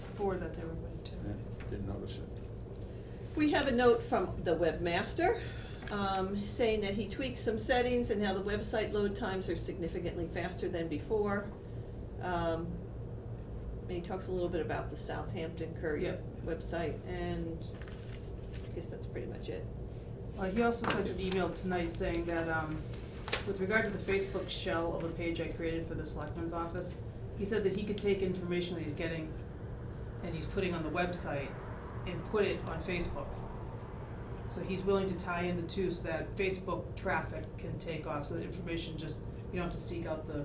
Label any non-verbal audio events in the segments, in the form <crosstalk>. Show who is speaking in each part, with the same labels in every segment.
Speaker 1: before that they were going to.
Speaker 2: Yeah, Didn't notice it.
Speaker 3: We have a note from the webmaster, um, saying that he tweaked some settings and how the website load times are significantly faster than before. Um, and he talks a little bit about the Southampton Courier website, and I guess that's pretty much it.
Speaker 1: Uh, he also sent an email tonight saying that, um, with regard to the Facebook shell of a page I created for the selectman's office, he said that he could take information that he's getting and he's putting on the website and put it on Facebook. So he's willing to tie in the two so that Facebook traffic can take off, so that information just, you don't have to seek out the,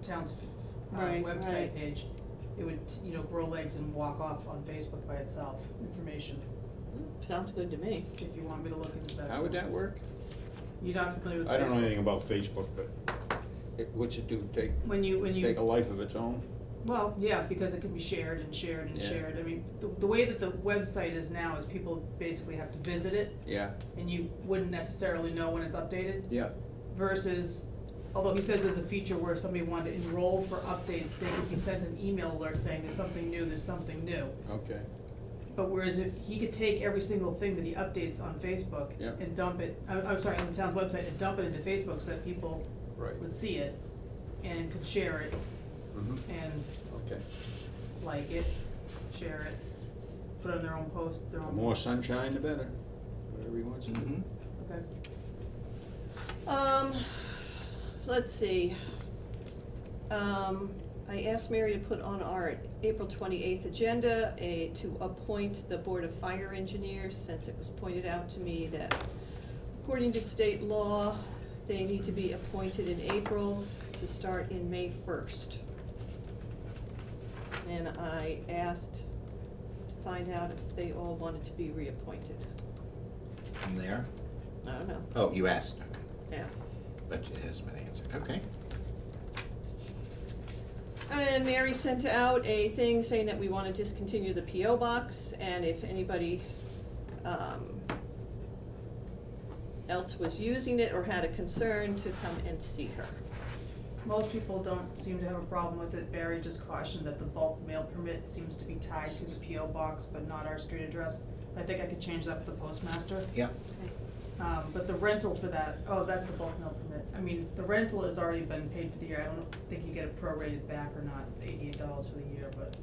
Speaker 1: the town's, uh,
Speaker 3: Right,
Speaker 1: website
Speaker 3: right.
Speaker 1: page. It would, you know, grow legs and walk off on Facebook by itself, information,
Speaker 3: Hmm, Sounds good to me.
Speaker 1: if you want me to look into that.
Speaker 2: How would that work?
Speaker 1: You're not familiar with Facebook?
Speaker 2: I don't know anything about Facebook, but it, what's it do, take,
Speaker 1: When you, when you.
Speaker 2: take a life of its own?
Speaker 1: Well, yeah, because it can be shared and shared and
Speaker 2: Yeah.
Speaker 1: shared. I mean, the, the way that the website is now is people basically have to visit it
Speaker 2: Yeah,
Speaker 1: and you wouldn't necessarily know when it's updated
Speaker 2: yeah,
Speaker 1: versus, although he says there's a feature where if somebody wanted to enroll for updates, they could be sent an email alert saying there's something new, there's something new.
Speaker 2: okay,
Speaker 1: But whereas if he could take every single thing that he updates on Facebook
Speaker 2: Yep.
Speaker 1: and dump it, I'm, I'm sorry, on the town's website and dump it into Facebook so that people
Speaker 2: right.
Speaker 1: would see it and could share it Mm-hmm.
Speaker 2: Mhm,
Speaker 1: and
Speaker 2: Okay.
Speaker 1: like it, share it, put on their own post, their
Speaker 2: The
Speaker 1: own.
Speaker 2: more sunshine, the better, whatever you want to do.
Speaker 1: Mm-hmm. Okay.
Speaker 3: Um, let's see. Um, I asked Mary to put on our April twenty-eighth agenda, a, to appoint the Board of Fire Engineers, since it was pointed out to me that according to state law, they need to be appointed in April to start in May first. And I asked to find out if they all wanted to be reappointed.
Speaker 4: From there?
Speaker 3: I don't know,
Speaker 4: Oh, you asked, okay,
Speaker 3: yeah.
Speaker 4: but it hasn't been answered, okay.
Speaker 3: And Mary sent out a thing saying that we want to discontinue the PO box, and if anybody, um, else was using it or had a concern, to come and see her.
Speaker 1: Most people don't seem to have a problem with it. Barry just cautioned that the bulk mail permit seems to be tied to the PO box, but not our street address. I think I could change that for the postmaster.
Speaker 4: Yeah,
Speaker 1: Um, but the rental for that, oh, that's the bulk mail permit. I mean, the rental has already been paid for the year. I don't think you get it prorated back or not. It's eighty-eight dollars for the year, but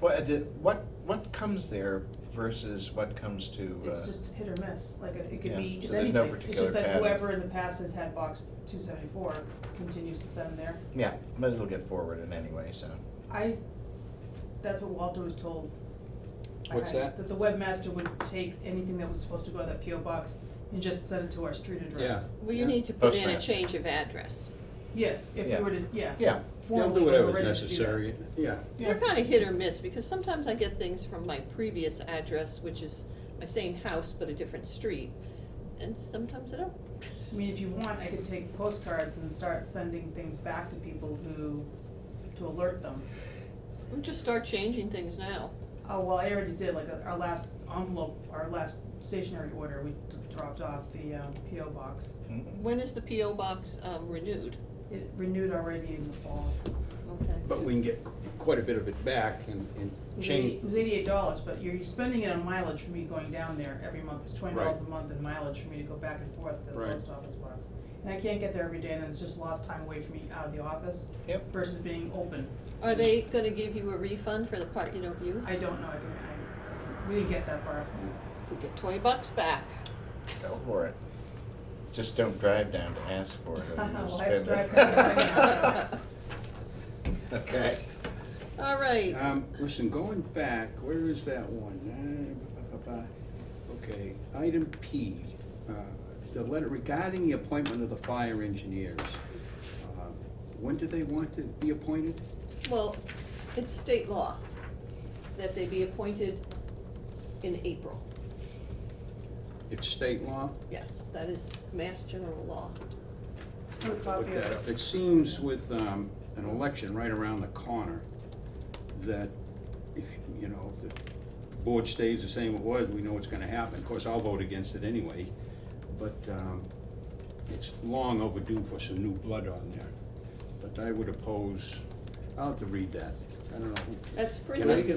Speaker 4: well, uh, did, what, what comes there versus what comes to, uh?
Speaker 1: it's just hit or miss. Like, it it could be,
Speaker 4: Yeah,
Speaker 1: it's
Speaker 4: so there's no
Speaker 1: anything. It's
Speaker 4: particular
Speaker 1: just that
Speaker 4: pattern.
Speaker 1: whoever in the past has had box two seventy-four continues to send there.
Speaker 4: Yeah, but it'll get forwarded anyway, so,
Speaker 1: I, that's what Walter was told.
Speaker 2: What's
Speaker 1: I-
Speaker 2: that?
Speaker 1: That the webmaster would take anything that was supposed to go to that PO box and just send it to our street address.
Speaker 2: Yeah.
Speaker 3: Well, you need to put in a
Speaker 4: Postmaster.
Speaker 3: change of address.
Speaker 1: Yes, if
Speaker 4: Yeah.
Speaker 1: you were to, yes.
Speaker 4: Yeah.
Speaker 2: They'll
Speaker 1: Formally,
Speaker 2: do
Speaker 1: we were
Speaker 2: whatever's
Speaker 1: ready to do that.
Speaker 2: necessary, yeah.
Speaker 3: They're kind of hit or miss, because sometimes I get things from my previous address, which is my same house but a different street, and sometimes I don't.
Speaker 1: I mean, if you want, I could take postcards and start sending things back to people who, to alert them.
Speaker 3: We just start changing things now.
Speaker 1: Oh, well, I already did, like, our last envelope, our last stationary order, we d- dropped off the, um, PO box.
Speaker 4: mm,
Speaker 3: When is the PO box, um, renewed?
Speaker 1: It renewed already in the fall.
Speaker 3: Okay.
Speaker 2: But we can get quite a bit of it back and, and change.
Speaker 1: It was eighty-eight dollars, but you're spending it on mileage for me going down there every month, it's twenty dollars a
Speaker 2: Right.
Speaker 1: month in mileage for me to go back and forth to the
Speaker 2: Right.
Speaker 1: post office box. And I can't get there every day, and it's just lost time away from me out of the office
Speaker 4: yep,
Speaker 1: versus being open.
Speaker 3: Are they gonna give you a refund for the part you don't use?
Speaker 1: I don't know, I can, I, we didn't get that far.
Speaker 3: You get twenty bucks back.
Speaker 4: go for it. Just don't drive down to ask for it,
Speaker 1: <laughs>
Speaker 4: or
Speaker 1: Well,
Speaker 4: you'll
Speaker 1: I have
Speaker 4: spend
Speaker 1: to
Speaker 4: it.
Speaker 1: drive
Speaker 4: <laughs> Okay,
Speaker 3: <laughs> All right,
Speaker 2: Um, listen, going back, where is that one? Uh, ba- ba- ba- ba. Okay, item P, uh, the letter regarding the appointment of the fire engineers. Uh, When do they want to be appointed?
Speaker 3: well, it's state law that they be appointed in April.
Speaker 2: It's state law?
Speaker 3: Yes, that is mass general law.
Speaker 1: Put a copy
Speaker 2: Look
Speaker 1: of
Speaker 2: that
Speaker 1: it.
Speaker 2: up. It seems with, um, an election right around the corner, that if, you know, if the board stays the same it was, we know what's gonna happen. Of course, I'll vote against it anyway, but, um, it's long overdue for some new blood on there. But I would oppose, I'll have to read that. I don't know. who-
Speaker 3: That's pretty.
Speaker 2: Can I get